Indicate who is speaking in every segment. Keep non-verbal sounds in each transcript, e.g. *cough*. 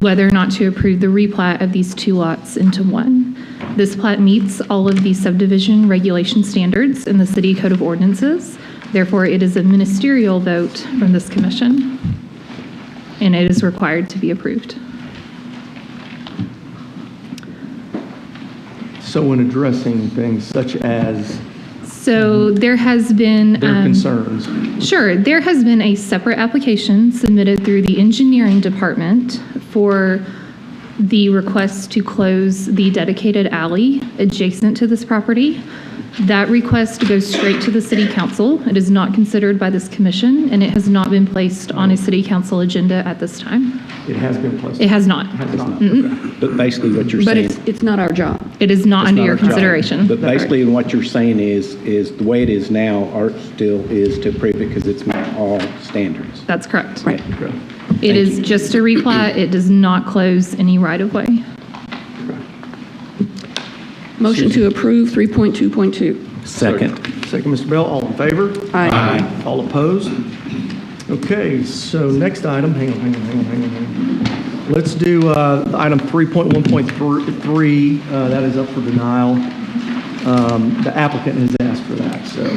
Speaker 1: whether or not to approve the replat of these two lots into one. This plat meets all of the subdivision regulation standards in the City Code of Ordinances. Therefore, it is a ministerial vote from this commission, and it is required to be approved.
Speaker 2: So in addressing things such as
Speaker 1: So there has been.
Speaker 2: their
Speaker 1: um,
Speaker 2: concerns,
Speaker 1: Sure. There has been a separate application submitted through the engineering department for the request to close the dedicated alley adjacent to this property. That request goes straight to the city council. It is not considered by this commission, and it has not been placed on a city council agenda at this time.
Speaker 2: it has been placed.
Speaker 1: It has not.
Speaker 2: Has not.
Speaker 3: But basically what you're
Speaker 4: But
Speaker 3: saying.
Speaker 4: it's, it's not our job.
Speaker 1: It is not
Speaker 3: it's
Speaker 1: under
Speaker 3: not
Speaker 1: your
Speaker 3: our job.
Speaker 1: consideration.
Speaker 3: But basically what you're saying is, is the way it is now, art still is to approve it because it's met all standards.
Speaker 1: That's correct.
Speaker 4: Right.
Speaker 2: Okay.
Speaker 1: It is just a replat. It does not close any right-of-way.
Speaker 4: Motion to approve 3.2.2.
Speaker 5: Second.
Speaker 2: Second, Mr. Bell, all in favor?
Speaker 4: Aye.
Speaker 2: All opposed? Okay, so next item, hang on, hang on, hang on, hang on, hang on. Let's do uh, item 3.1.3, uh, that is up for denial. Um, The applicant has asked for that, so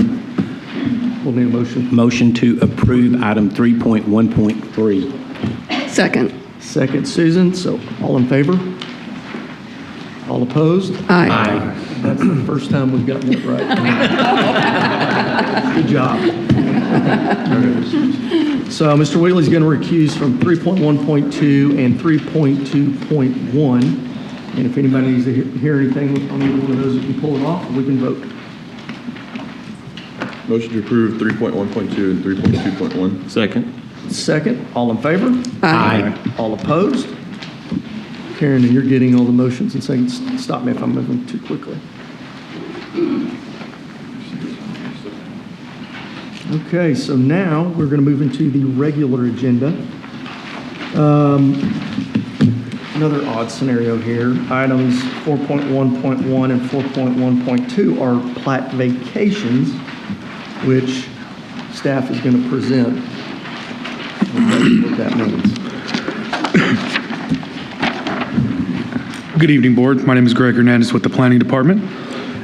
Speaker 2: we'll need a motion.
Speaker 3: Motion to approve item 3.1.3.
Speaker 4: Second.
Speaker 2: Second, Susan, so all in favor? All opposed?
Speaker 4: Aye.
Speaker 2: That's the first time we've gotten it right. Good job. So Mr. Wheatley's going to recuse from 3.1.2 and 3.2.1. And if anybody needs to he- hear anything on either one of those, we can pull it off, we can vote.
Speaker 6: Motion to approve 3.1.2 and 3.2.1.
Speaker 5: Second.
Speaker 2: Second, all in favor?
Speaker 3: Aye.
Speaker 2: All opposed? Karen, you're getting all the motions and saying, stop me if I'm moving too quickly. Okay, so now we're going to move into the regular agenda. Um, Another odd scenario here. Items 4.1.1 and 4.1.2 are plat vacations, which staff is going to present. What that means.
Speaker 7: Good evening, Board. My name is Greg Hernandez with the Planning Department,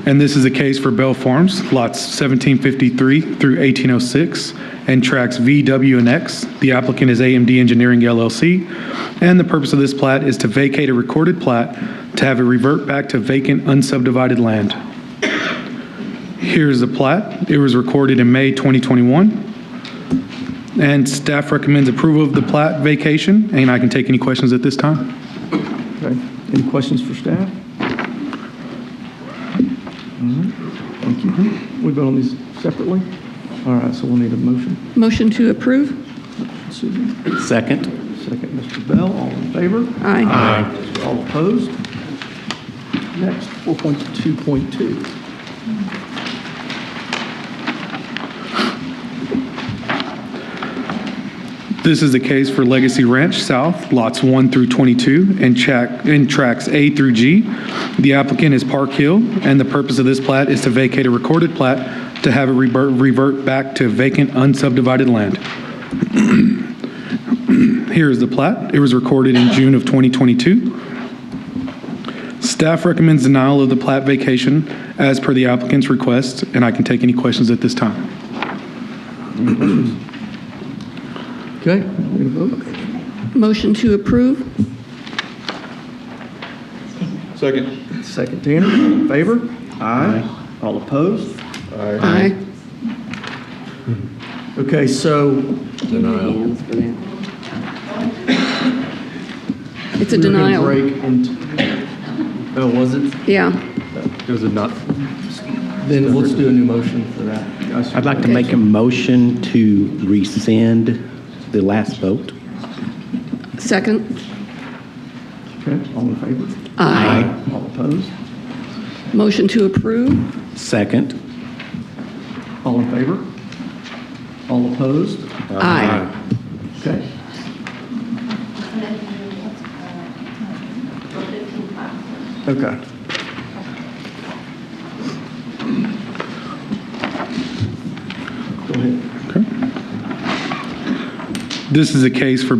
Speaker 7: and this is a case for Bell Farms, lots 1753 through 1806, and tracts V, W, and X. The applicant is AMD Engineering LLC, and the purpose of this plat is to vacate a recorded plat to have it revert back to vacant unsubdivided land. Here's the plat. It was recorded in May 2021, and staff recommends approval of the plat vacation, and I can take any questions at this time.
Speaker 2: Okay, any questions for staff? All right, Thank you. We vote on these separately? All right, so we'll need a motion.
Speaker 4: Motion to approve?
Speaker 2: Susan,
Speaker 5: Second.
Speaker 2: second, Mr. Bell, all in favor?
Speaker 4: Aye.
Speaker 2: All opposed? Next, 4.2.2.
Speaker 7: This is the case for Legacy Ranch South, lots 1 through 22, and track, and tracks A through G. The applicant is Park Hill, and the purpose of this plat is to vacate a recorded plat to have it revert, revert back to vacant unsubdivided land. *clears throat* Here is the plat. It was recorded in June of 2022. Staff recommends denial of the plat vacation as per the applicant's request, and I can take any questions at this time.
Speaker 2: Okay, we're going to vote.
Speaker 4: Motion to approve?
Speaker 6: Second.
Speaker 2: Second, Tanner, all in favor? Aye. All opposed?
Speaker 4: Aye.
Speaker 2: Okay, so
Speaker 4: Hands for that. It's a
Speaker 2: we were gonna
Speaker 4: denial.
Speaker 2: break and, oh, was it?
Speaker 4: Yeah.
Speaker 2: Was it not? Then let's do a new motion for that.
Speaker 3: I'd like to make a motion to rescind the last vote.
Speaker 4: Second.
Speaker 2: Okay, all in favor?
Speaker 4: Aye.
Speaker 2: All opposed?
Speaker 4: Motion to approve?
Speaker 3: Second.
Speaker 2: All in favor? All opposed?
Speaker 4: Aye.
Speaker 2: Okay. Okay. Go ahead.
Speaker 7: This is a case for